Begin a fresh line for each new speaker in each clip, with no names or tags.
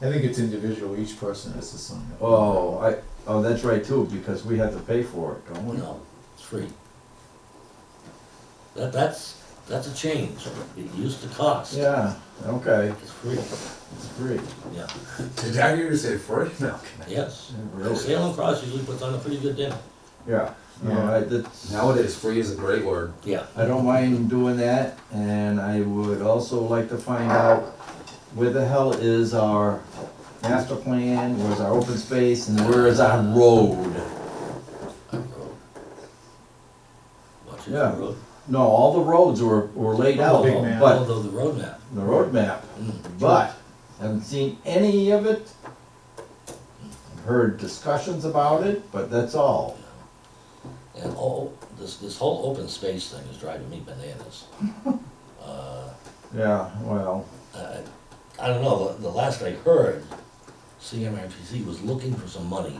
I think it's individual, each person has to sign it.
Oh, I, oh, that's right too, because we have to pay for it, don't we?
No, it's free. That, that's, that's a change. It used to cost.
Yeah, okay,
It's free,
it's free,
yeah,
Did I hear you say free? No.
yes.
really,
Salem Cross usually puts on a pretty good dinner.
yeah. No, I, that's,
Nowadays, free is a great word.
Yeah.
I don't mind doing that, and I would also like to find out where the hell is our master plan, where's our open space, and where is our road?
I wrote. Watch it,
Yeah.
I wrote.
No, all the roads were, were laid out,
Big man.
but
Although the roadmap,
the roadmap,
mm,
but haven't seen any of it. Heard discussions about it, but that's all.
and all, this, this whole open space thing is driving me bananas. Uh,
Yeah, well,
I, I don't know, the, the last I heard, CMRPC was looking for some money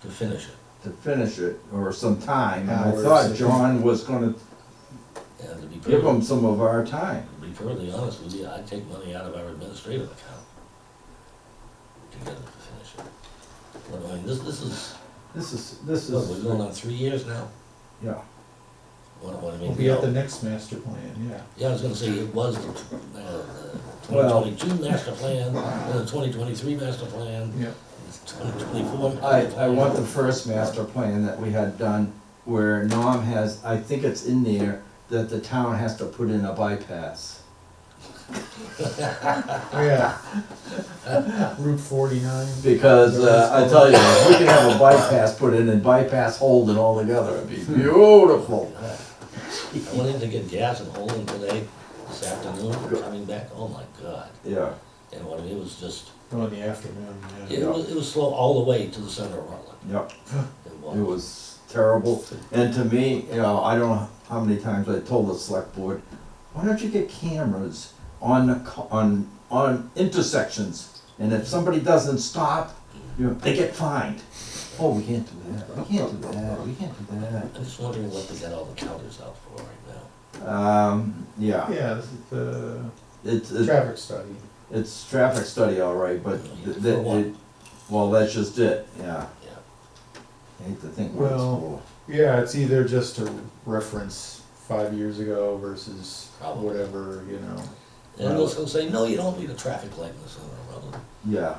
to finish it,
to finish it, or some time, and I
Hours.
thought John was gonna
and to be
give
perfectly,
him some of our time.
to be perfectly honest with you, I'd take money out of our administrative account to get it to finish it. But I mean, this, this is,
This is, this
what, we're
is,
going on three years now,
yeah.
what, what I mean.
We'll Oh, be at
now-
the next master plan, yeah.
Yeah, I was gonna say, it was the uh, twenty
Well-
twenty-two master plan, then the twenty twenty-three master plan,
Yeah.
twenty twenty-four.
I, I want the first master plan that we had done, where Norm has, I think it's in there, that the town has to put in a bypass.
Oh, yeah. Route forty-nine.
Because, uh, I tell you, if we could have a bypass put in and bypass Holden altogether, it'd be beautiful.
I went in to get gas and Holden today, this afternoon, coming back, oh my god.
Yeah,
And what I mean, it was just,
Oh, in the afternoon,
it
yeah.
was, it was slow all the way to the center of Rutland.
yep,
It
it
was,
was terrible. And to me, you know, I don't know how many times I told the select board, why don't you get cameras on the, co- on, on intersections? And if somebody doesn't stop, you know, they get fined. Oh, we can't do that, we can't do that, we can't do that.
I'm just wondering what they got all the counters out for right now.
Um, yeah,
Yeah, this is the
it's, it's
traffic study.
It's traffic study, all right, but th-
For
that,
what?
it, well, that's just it, yeah.
Yeah.
I hate to think what it's
Well-
for.
Yeah, it's either just to reference five years ago versus
Probably.
whatever, you know.
And
Well-
those will say, no, you don't need a traffic light in the center of Rutland.
Yeah.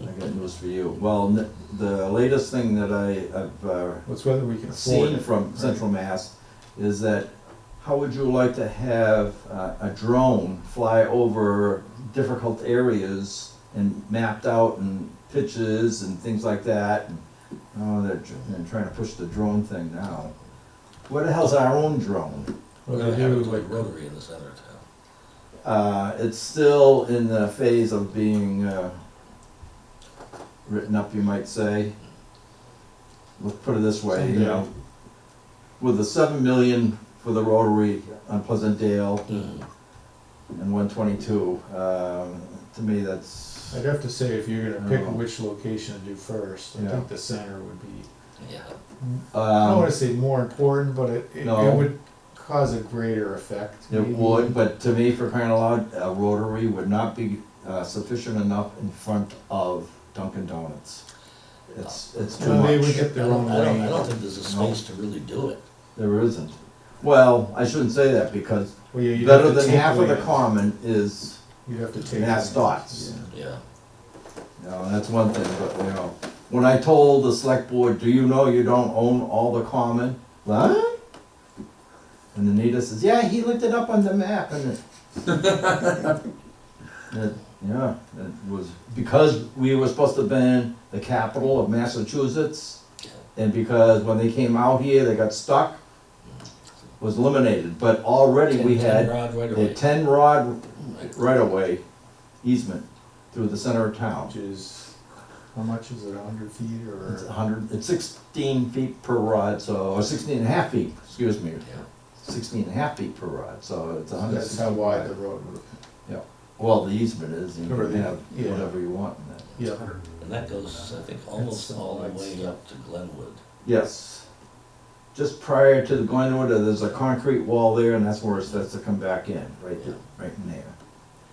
I got news for you. Well, n- the latest thing that I have uh,
It's whether we can afford
seen
it.
from Central Mass is that, how would you like to have uh, a drone fly over difficult areas and mapped out and pitches and things like that? And, Oh, they're, tr- they're trying to push the drone thing now. Where the hell's our own drone?
We're
What
gonna
they
have
do,
it to a
like,
rotary in the center of town.
Uh, it's still in the phase of being, uh, written up, you might say. Let's put it this way, you know, with the seven million for the Rotary on Pleasant Dale
Mm-hmm.
Mhm.
and one twenty-two, um, to me, that's,
I'd have to say, if you're gonna pick
Oh.
which location to do first, I
Yeah.
think the center would be,
Yeah,
I don't
um,
wanna say more important, but it, it
No.
it would cause a greater effect.
it
maybe.
would, but to me, for crying out loud, a Rotary would not be uh, sufficient enough in front of Dunkin' Donuts. It's, it's too
And
much.
they would get
I
their
don't,
own
I don't, I
lane.
don't think there's a space to really do it.
There isn't. Well, I shouldn't say that because
Well, yeah, you'd have
better
to
than
take
half of the
lanes.
common is,
You'd have to take.
Mass
lanes.
dots.
Yeah.
Yeah,
you know, that's one thing, but you know, when I told the select board, do you know you don't own all the common? What? And Anita says, yeah, he looked it up on the map and it. It- Yeah, it was, because we were supposed to have been the capital of Massachusetts and because when they came out here, they got stuck, was eliminated, but already we
Ten- ten
had
rod right
a
away.
ten rod
Right.
right away easement through the center of town.
Which is, how much is it, a hundred feet
It's
or?
hundred, it's sixteen feet per rod, so, or sixteen and a half feet, excuse me,
Yeah.
sixteen and a half feet per rod, so it's a hundred.
That's how wide the road would.
Well, the easement is, you
Or
can
the-
have
yeah.
whatever you want in that.
Yeah.
And that goes, I think, almost
That's
all the
nice.
way up to Glenwood.
Yes. Just prior to the Glenwood, uh, there's a concrete wall there, and that's where it starts to come back in, right, there- right in there.